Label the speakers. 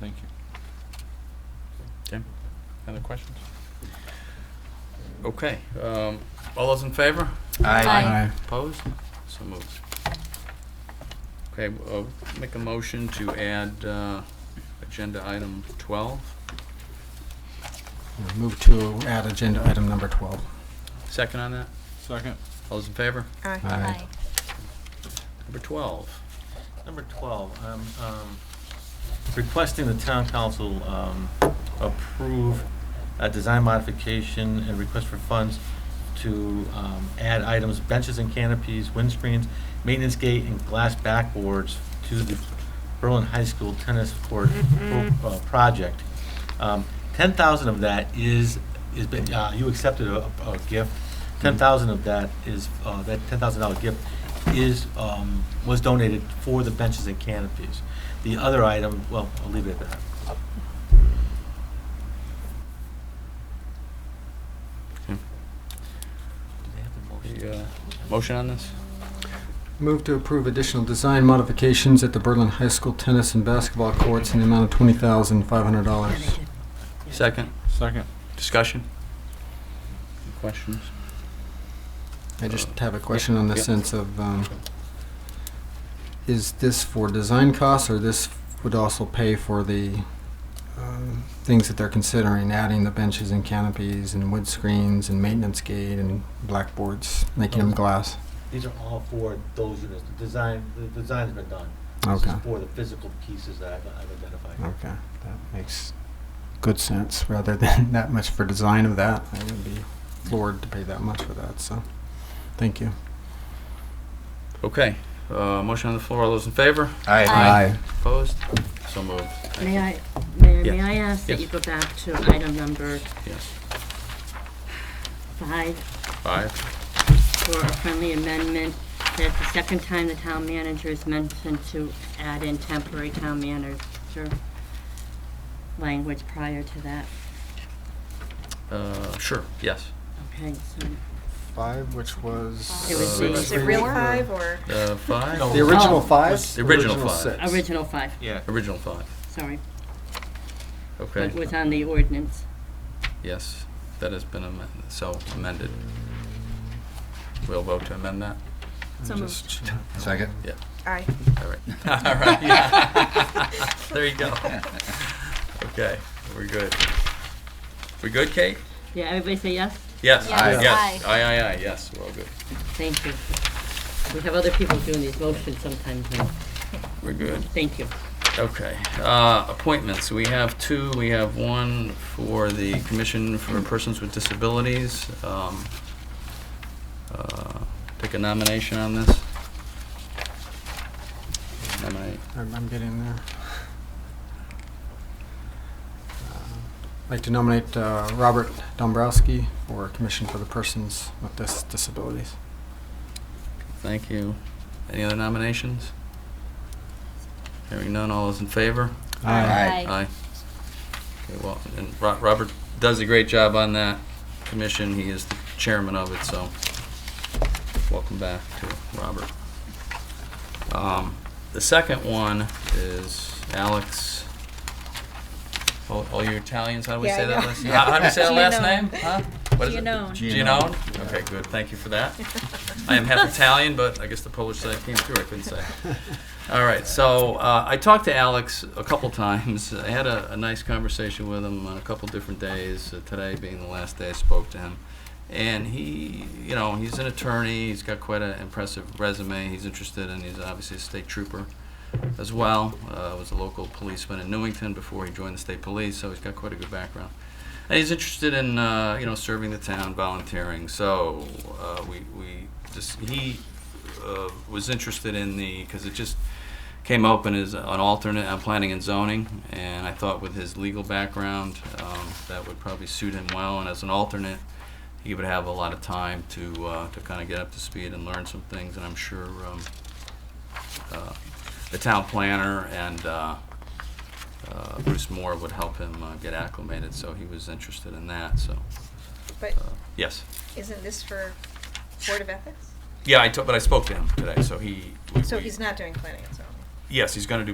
Speaker 1: Thank you. Tim, other questions? Okay, um, all those in favor?
Speaker 2: Aye.
Speaker 1: Opposed? So moved. Okay, uh, make a motion to add, uh, agenda item twelve.
Speaker 3: Move to add agenda item number 12.
Speaker 1: Second on that?
Speaker 4: Second.
Speaker 1: All those in favor?
Speaker 3: Aye.
Speaker 1: Number twelve.
Speaker 4: Number 12, I'm um, requesting the town council um, approve a design modification and request for funds to um, add items, benches and canopies, windscreens, maintenance gate, and glass backboards to the Berlin High School tennis court pro- uh, project. Um, 10,000 of that is, is, been- uh, you accepted a a gift. 10,000 of that is, uh, that $10,000 gift is, um, was donated for the benches and canopies. The other item, well, I'll leave it at that.
Speaker 1: The, uh, motion on this?
Speaker 3: Move to approve additional design modifications at the Berlin High School tennis and basketball courts in the amount of $20,500.
Speaker 1: Second?
Speaker 4: Second.
Speaker 1: Discussion? Questions?
Speaker 3: I just have a question on the
Speaker 1: Yeah.
Speaker 3: sense of, um, is this for design costs, or this would also pay for the um, things that they're considering, adding the benches and canopies and wood screens and maintenance gate and blackboards, making them glass?
Speaker 4: These are all for those units. The design, the design's been done. This is
Speaker 3: Okay,
Speaker 4: for the physical pieces that I've I've identified.
Speaker 3: okay, that makes good sense, rather than that much for design of that. I would be floored to pay that much for that, so, thank you.
Speaker 1: Okay, uh, motion on the floor. All those in favor?
Speaker 2: Aye.
Speaker 1: Opposed? So moved. Thank
Speaker 5: May
Speaker 1: you.
Speaker 5: I, Mayor,
Speaker 1: Yeah.
Speaker 5: may I ask that
Speaker 1: Yes.
Speaker 5: you go back to item number
Speaker 1: Yes.
Speaker 5: five
Speaker 1: Five.
Speaker 5: for a friendly amendment? That the second time the town manager is mentioned to add in temporary town manager language prior to that.
Speaker 1: Uh, sure, yes.
Speaker 5: Okay, so
Speaker 3: Five, which was.
Speaker 5: It was
Speaker 1: the-
Speaker 3: uh,
Speaker 1: Is
Speaker 6: it really five or?
Speaker 1: Uh, five?
Speaker 4: No.
Speaker 3: The original
Speaker 5: Oh.
Speaker 3: five?
Speaker 1: The original five.
Speaker 3: six.
Speaker 5: original five,
Speaker 4: Yeah.
Speaker 1: Original five.
Speaker 5: sorry,
Speaker 1: Okay.
Speaker 5: but was on the ordinance.
Speaker 1: Yes, that has been amended, so amended. We'll vote to amend that?
Speaker 6: So moved.
Speaker 2: Second?
Speaker 6: Aye.
Speaker 1: All right. All right. There you go. Okay, we're good. We good, Kate?
Speaker 5: Yeah, everybody say yes?
Speaker 1: Yes,
Speaker 6: Yes.
Speaker 1: yes. Aye, aye, aye, yes, we're all good.
Speaker 5: Thank you. We have other people doing these motions sometimes, and
Speaker 1: We're good.
Speaker 5: thank you.
Speaker 1: Okay, uh, appointments, we have two, we have one for the Commission for Persons with Disabilities. Um, uh, Take a nomination on this. Nominate,
Speaker 3: I'm, I'm getting there. Uh, I'd like to nominate uh, Robert Dombrowski for Commission for the Persons with Dis- Disabilities.
Speaker 1: thank you. Any other nominations? Hearing none, all those in favor?
Speaker 2: Aye.
Speaker 1: Aye. Okay, well, and Ro- Robert does a great job on that commission. He is the chairman of it, so welcome back to Robert. Um, The second one is Alex, all all you Italians, how do we
Speaker 6: Yeah, I
Speaker 1: say that
Speaker 6: know.
Speaker 1: last? How how do we say that last name?
Speaker 6: Gianone.
Speaker 1: Huh? What is it?
Speaker 6: Gianone.
Speaker 1: Gianone? Okay, good, thank you for that. I am half Italian, but I guess the Polish side came through, I couldn't say. All right, so uh, I talked to Alex a couple times. I had a, a nice conversation with him on a couple different days, uh, today being the last day I spoke to him. And he, you know, he's an attorney, he's got quite an impressive resume, he's interested, and he's obviously a state trooper as well. Uh, was a local policeman in Newington before he joined the state police, so he's got quite a good background. And he's interested in uh, you know serving the town, volunteering. So uh, we we just he uh, was interested in the because it just came open as an alternate on planning and zoning, and I thought with his legal background um, that would probably suit him well. And as an alternate, he would have a lot of time to uh, to kind of get up to speed and learn some things. And I'm sure um, uh, the town planner and uh, uh, Bruce Moore would help him uh, get acclimated, so he was interested in that, so,
Speaker 6: But
Speaker 1: uh, yes.
Speaker 6: isn't this for Board of Ethics?
Speaker 1: Yeah, I, to- but I spoke to him today, so he. we-
Speaker 6: So
Speaker 1: we-
Speaker 6: he's not doing planning and zoning?
Speaker 1: Yes, he's gonna do